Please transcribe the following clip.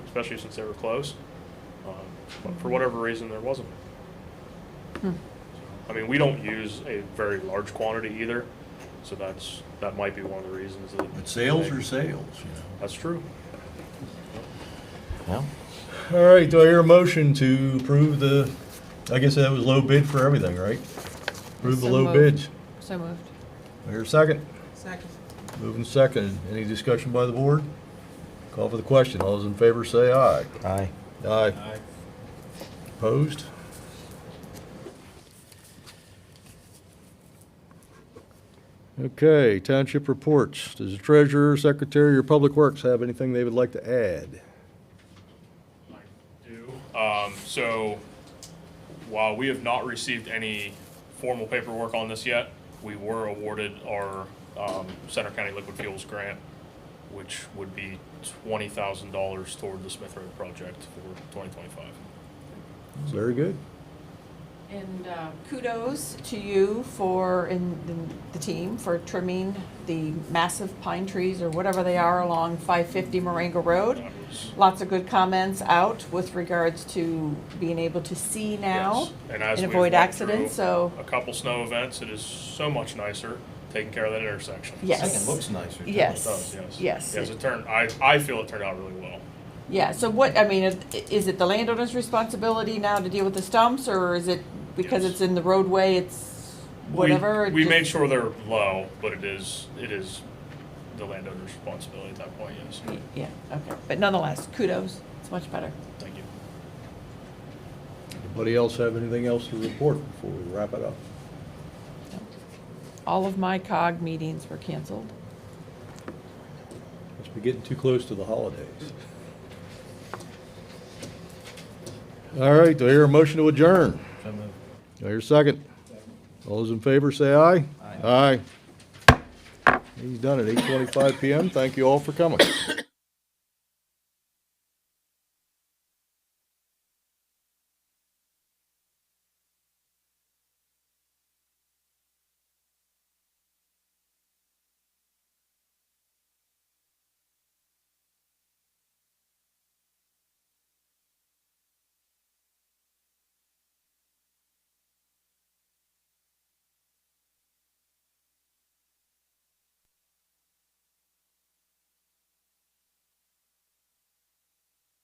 especially since they were close. Um, But for whatever reason, there wasn't. I mean, we don't use a very large quantity either, so that's, that might be one of the reasons that. But sales are sales, you know. That's true. Yeah. All right, do I hear a motion to approve the, I guess that was low bid for everything, right? Approve the So low moved. bids. So moved. I hear a second. Second. Moving second. Any discussion by the board? Call for the question. All those in favor say aye. Aye. Aye. Opposed? Okay, township reports. Does the treasurer, secretary, or public works have anything they would like to add? do. Um, so while we have not received any formal paperwork on this yet, we were awarded our um, Center County Liquid Fuels Grant, which would be twenty thousand dollars toward the Smith Road project for twenty twenty-five. Very good. And uh, kudos to you for, and and the team for trimming the massive pine trees or whatever they are along 550 Moringa Road. That was Lots of good comments out with regards to being able to see now Yes, And as and we've avoid went accidents, through so, A couple snow events, it is so much nicer taking care of that intersection. Yes. Second looks nicer. too. It yes. does, yes. Yes. Yes, it turned, I, I feel it turned out really well. Yeah, so what, I mean, is- is it the landowner's responsibility now to deal with the stumps, or is it because Yes. it's in the roadway, it's We- whatever? it We just- made sure they're low, but it is, it is the landowner's responsibility at that point, yes. Yeah, okay, but nonetheless, kudos, it's much better. Thank you. Anybody else have anything else to report before we wrap it up? All of my COG meetings were canceled. Must be getting too close to the holidays. All right, do I hear a motion to adjourn? Do I hear a second? All those in favor, say aye. Aye. He's done at eight twenty-five PM. Thank you all for coming.